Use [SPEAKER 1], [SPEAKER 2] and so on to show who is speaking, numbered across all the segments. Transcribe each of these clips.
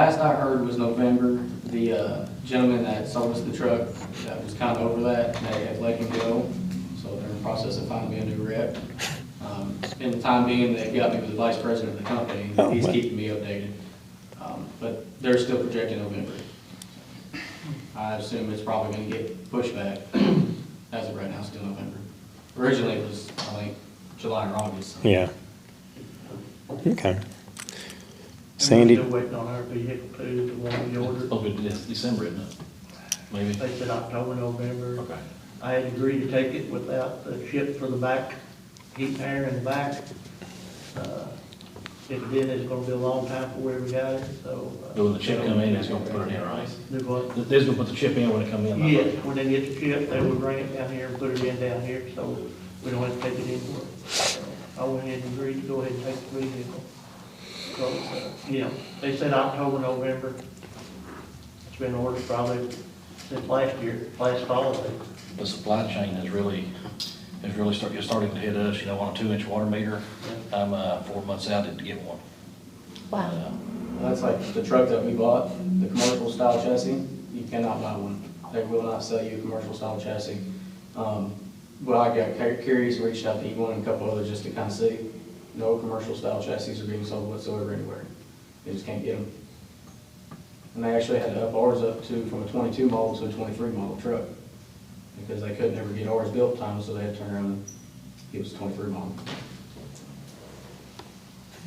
[SPEAKER 1] last I heard was November. The uh, gentleman that sold us the truck, that was kind of over that, they had let him go. So they're in the process of finding me a new rep. Um, In the time being, they got me with the vice president of the
[SPEAKER 2] Oh,
[SPEAKER 1] company. He's
[SPEAKER 2] well.
[SPEAKER 1] keeping me updated. Um, But they're still projecting November. I assume it's probably going to get pushed back. As of right now, still November. Originally, it was, I think, July or August. so.
[SPEAKER 2] Yeah. Okay.
[SPEAKER 3] And
[SPEAKER 2] Sandy,
[SPEAKER 3] we're Still waiting on our vehicle too, the one we ordered.
[SPEAKER 4] Oh, but it's December, isn't it? Maybe?
[SPEAKER 3] They said October, November.
[SPEAKER 4] Okay.
[SPEAKER 3] I had agreed to take it without the chip for the back, heat and air in the back. Uh, If it did, it's gonna be a long time before we ever got it, so. uh,
[SPEAKER 4] But when the chip come in, it's gonna put it in, right?
[SPEAKER 3] Do what?
[SPEAKER 4] They're just gonna put the chip in when it come in. like-
[SPEAKER 3] Yes, when they get the chip, they will bring it down here and put it in down here, so we don't have to take it anywhere. So I went ahead and agreed to go ahead and take the vehicle. So, uh, yeah, they said October, November. It's been ordered probably since last year, last fall, they-
[SPEAKER 4] The supply chain is really, is really start, you're starting to hit us, you know, on a two-inch water meter. I'm, uh, four months out to get one.
[SPEAKER 5] Wow.
[SPEAKER 4] Uh,
[SPEAKER 1] That's like the truck that we bought, the commercial style chassis, you cannot buy one. They will not sell you a commercial style chassis. Um, But I got cu- curious, reached out to E1 and a couple others just to kind of see. No commercial style chassis are being sold whatsoever anywhere. They just can't get them. And they actually had to up ours up to, from a 22 model to a 23 model truck. Because they couldn't ever get ours built time, so they had to turn around and give us a 23 model.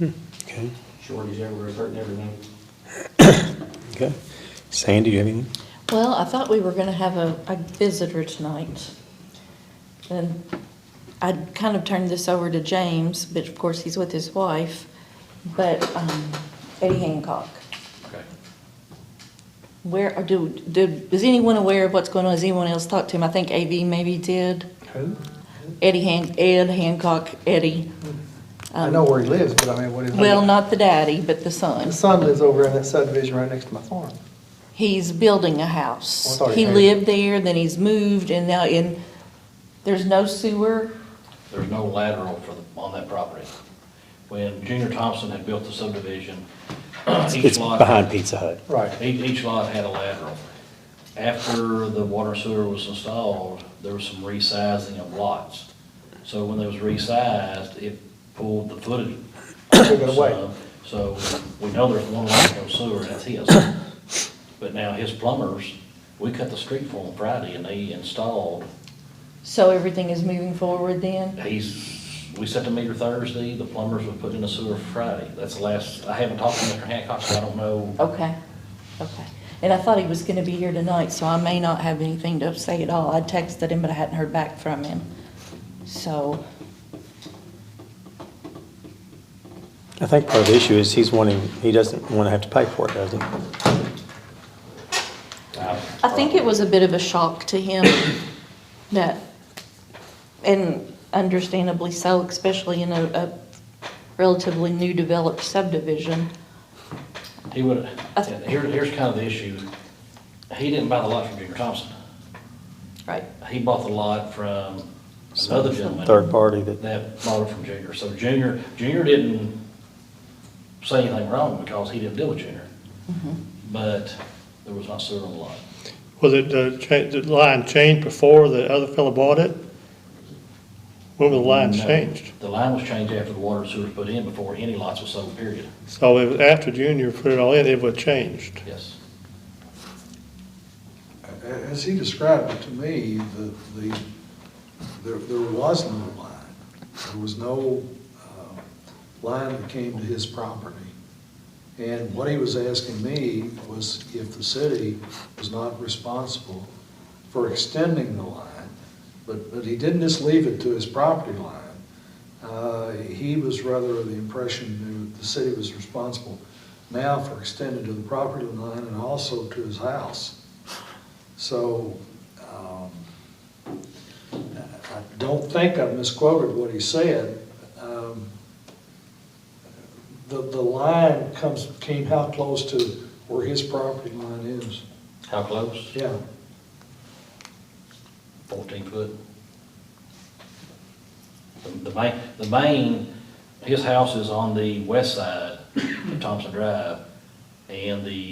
[SPEAKER 2] okay,
[SPEAKER 1] Shortage everywhere, hurting everything.
[SPEAKER 2] okay. Sandy, do you have anything?
[SPEAKER 5] Well, I thought we were gonna have a, a visitor tonight. And I kind of turned this over to James, but of course he's with his wife, but, um, Eddie Hancock.
[SPEAKER 4] Okay.
[SPEAKER 5] Where, or do, do, is anyone aware of what's going on? Has anyone else talked to him? I think AV maybe did.
[SPEAKER 6] Who?
[SPEAKER 5] Eddie Han, Ed Hancock, Eddie.
[SPEAKER 6] I know where he lives, but I mean, what is?
[SPEAKER 5] Well, not the daddy, but the
[SPEAKER 6] The
[SPEAKER 5] son.
[SPEAKER 6] son lives over in that subdivision right next to my farm.
[SPEAKER 5] He's building a
[SPEAKER 6] Well, Oh, I
[SPEAKER 5] house.
[SPEAKER 6] thought he
[SPEAKER 5] He
[SPEAKER 6] had-
[SPEAKER 5] lived there, then he's moved, and now in, there's no sewer.
[SPEAKER 4] There's no lateral for, the- on that property. When Junior Thompson had built the subdivision, each
[SPEAKER 2] It's
[SPEAKER 4] lot.
[SPEAKER 2] behind Pizza Hut.
[SPEAKER 6] Right.
[SPEAKER 4] Each, each lot had a lateral. After the water sewer was installed, there was some resizing of lots. So when it was resized, it pulled the footage.
[SPEAKER 6] Took it away.
[SPEAKER 4] some. So we know there's one lot no sewer, and that's his. But now his plumbers, we cut the street for him Friday and they installed,
[SPEAKER 5] So everything is moving forward then?
[SPEAKER 4] he's, we set the meter Thursday, the plumbers were putting in the sewer Friday. That's the last, I haven't talked to Mr. Hancock, so I don't know.
[SPEAKER 5] Okay, okay. And I thought he was gonna be here tonight, so I may not have anything to say at all. I texted him, but I hadn't heard back from him. So,
[SPEAKER 2] I think part of the issue is he's wanting, he doesn't want to have to pay for it, does he?
[SPEAKER 5] I think it was a bit of a shock to him that, and understandably so, especially in a, a relatively new developed subdivision.
[SPEAKER 4] He would,
[SPEAKER 5] I th-
[SPEAKER 4] here, here's kind of the issue. He didn't buy the lot from Junior Thompson.
[SPEAKER 5] Right.
[SPEAKER 4] He bought the lot from another gentleman.
[SPEAKER 2] Third party that,
[SPEAKER 4] That bought it from Junior. So Junior, Junior didn't say anything wrong because he didn't deal with Junior. But there was not sewer on the lot.
[SPEAKER 7] Was it the cha, the line changed before the other fellow bought it? When was the line
[SPEAKER 4] No.
[SPEAKER 7] changed?
[SPEAKER 4] The line was changed after the water and sewer was put in before any lots was sold, period.
[SPEAKER 7] So it was after Junior put it all in, it was changed.
[SPEAKER 4] Yes.
[SPEAKER 8] A- As he described it to me, the, the, there, there was no line. There was no, uh, line that came to his property. And what he was asking me was if the city was not responsible for extending the line, but, but he didn't just leave it to his property line. Uh, he was rather of the impression that the city was responsible now for extending to the property line and also to his house. So, um, I don't think I misquoted what he said. Um, The, the line comes, came how close to where his property line is.
[SPEAKER 4] How close?
[SPEAKER 8] Yeah,
[SPEAKER 4] Fourteen foot. The- The main, the main, his house is on the west side of Thompson Drive, and the